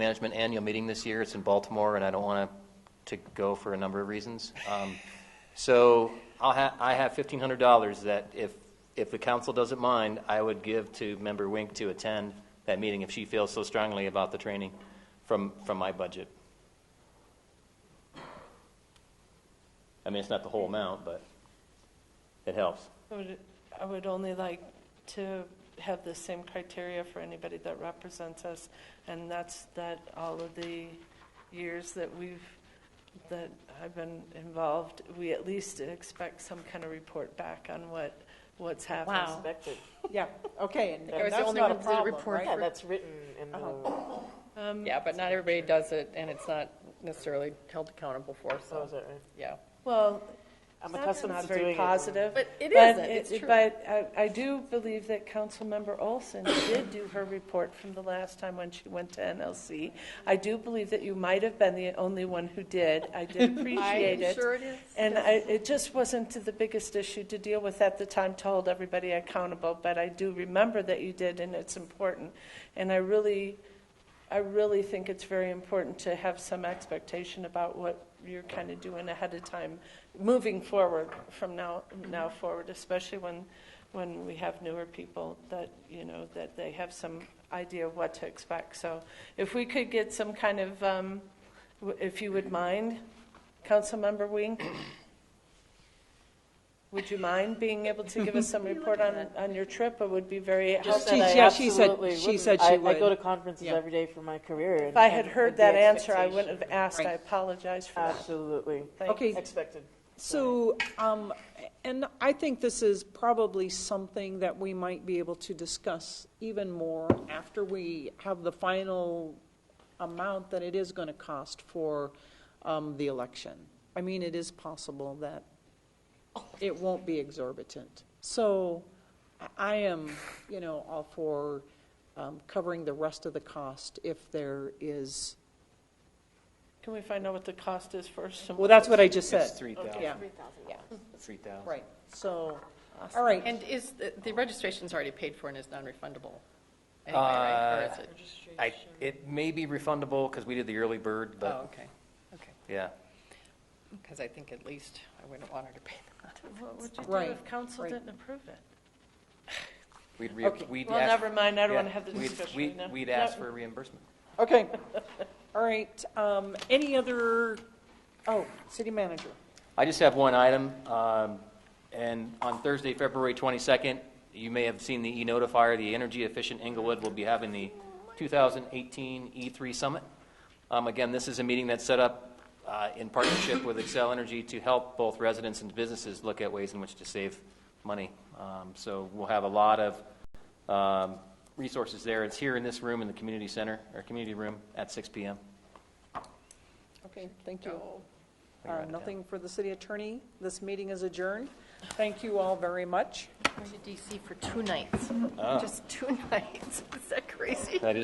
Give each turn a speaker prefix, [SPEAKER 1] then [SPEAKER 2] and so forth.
[SPEAKER 1] Management Annual Meeting this year. It's in Baltimore, and I don't want to go for a number of reasons. Um, So I'll ha, I have fifteen hundred dollars that if, if the council doesn't mind, I would give to member Wink to attend that meeting if she feels so strongly about the training from, from my budget. I mean, it's not the whole amount, but it helps.
[SPEAKER 2] I would, I would only like to have the same criteria for anybody that represents us, and that's that all of the years that we've, that I've been involved, we at least expect some kind of report back on what, what's happened.
[SPEAKER 3] Wow.
[SPEAKER 4] Expected.
[SPEAKER 5] Yeah, okay, and
[SPEAKER 3] was
[SPEAKER 5] and
[SPEAKER 3] the
[SPEAKER 5] that's
[SPEAKER 3] only
[SPEAKER 5] not a
[SPEAKER 3] ones that
[SPEAKER 5] problem,
[SPEAKER 3] report
[SPEAKER 5] right?
[SPEAKER 4] Yeah, that's written in the,
[SPEAKER 3] Yeah, but not everybody does it, and it's not necessarily held accountable for,
[SPEAKER 4] oh,
[SPEAKER 3] so,
[SPEAKER 4] is that right?
[SPEAKER 3] yeah.
[SPEAKER 2] Well,
[SPEAKER 4] I'm
[SPEAKER 2] it's
[SPEAKER 4] accustomed
[SPEAKER 2] not
[SPEAKER 4] to doing
[SPEAKER 2] very
[SPEAKER 4] it.
[SPEAKER 2] positive.
[SPEAKER 3] But it isn't,
[SPEAKER 2] it-
[SPEAKER 3] it's true.
[SPEAKER 2] But I, I do believe that Councilmember Olson did do her report from the last time when she went to NLC. I do believe that you might have been the only one who did. I did appreciate it.
[SPEAKER 3] sure it is.
[SPEAKER 2] And I, it just wasn't the biggest issue to deal with at the time to hold everybody accountable, but I do remember that you did, and it's important. And I really, I really think it's very important to have some expectation about what you're kind of doing ahead of time, moving forward from now, now forward, especially when, when we have newer people that, you know, that they have some idea of what to expect. So if we could get some kind of, um, w- if you would mind, Councilmember Wink, would you mind being able to give us some report on, on your trip? It would be very
[SPEAKER 4] Just
[SPEAKER 2] helpful.
[SPEAKER 5] She-
[SPEAKER 4] that I
[SPEAKER 5] yeah, she said-
[SPEAKER 4] absolutely
[SPEAKER 5] she
[SPEAKER 4] wouldn't.
[SPEAKER 5] said she
[SPEAKER 4] I- I
[SPEAKER 5] would.
[SPEAKER 4] go to conferences
[SPEAKER 3] Yeah.
[SPEAKER 4] every day for my career.
[SPEAKER 2] If I had heard that answer, I wouldn't have asked. I
[SPEAKER 3] Right.
[SPEAKER 2] apologize for
[SPEAKER 5] Uh,
[SPEAKER 2] that.
[SPEAKER 4] Absolutely.
[SPEAKER 2] Thank
[SPEAKER 5] Okay.
[SPEAKER 4] Expected.
[SPEAKER 5] So, um, and I think this is probably something that we might be able to discuss even more after we have the final amount that it is going to cost for um, the election. I mean, it is possible that it won't be exorbitant. So I- I am, you know, all for um, covering the rest of the cost if there is,
[SPEAKER 2] Can we find out what the cost is first? and
[SPEAKER 5] well, that's what I just said.
[SPEAKER 1] It's three
[SPEAKER 5] Yeah,
[SPEAKER 1] thousand,
[SPEAKER 3] Yeah.
[SPEAKER 1] three thousand.
[SPEAKER 5] right. So, all right.
[SPEAKER 3] And is, the- the registration's already paid for and is non-refundable anyway, right? Or is it?
[SPEAKER 1] I, it may be refundable because we did the early bird,
[SPEAKER 3] Oh,
[SPEAKER 1] but,
[SPEAKER 3] okay, okay.
[SPEAKER 1] yeah.
[SPEAKER 3] Because I think at least I wouldn't want her to pay the money.
[SPEAKER 2] What would you do
[SPEAKER 5] Right,
[SPEAKER 2] if council
[SPEAKER 5] right.
[SPEAKER 2] didn't approve it?
[SPEAKER 1] We'd re,
[SPEAKER 5] Okay.
[SPEAKER 1] we'd
[SPEAKER 2] Well,
[SPEAKER 1] ask-
[SPEAKER 2] never mind, I don't
[SPEAKER 1] yeah,
[SPEAKER 2] want to have the
[SPEAKER 1] we'd-
[SPEAKER 2] discussion
[SPEAKER 1] we'd-
[SPEAKER 2] right now.
[SPEAKER 1] We'd
[SPEAKER 2] Yeah.
[SPEAKER 1] ask for reimbursement.
[SPEAKER 5] Okay, all right, um, any other, oh, city manager.
[SPEAKER 1] I just have one item, um, and on Thursday, February 22nd, you may have seen the e-notifier, the Energy Efficient Inglewood will be having the 2018 E3 E Summit. Um, Again, this is a meeting that's set up uh, in partnership with Excel Energy to help both residents and businesses look at ways in which to save money. Um, So we'll have a lot of um, resources there. It's here in this room, in the community center, or community room, at 6 PM.
[SPEAKER 5] Okay, thank you.
[SPEAKER 1] I can
[SPEAKER 5] Uh,
[SPEAKER 1] write it down.
[SPEAKER 5] Nothing for the city attorney, this meeting is adjourned. Thank you all very much.
[SPEAKER 3] Going to DC for two nights, just two nights. Is that crazy?
[SPEAKER 1] That is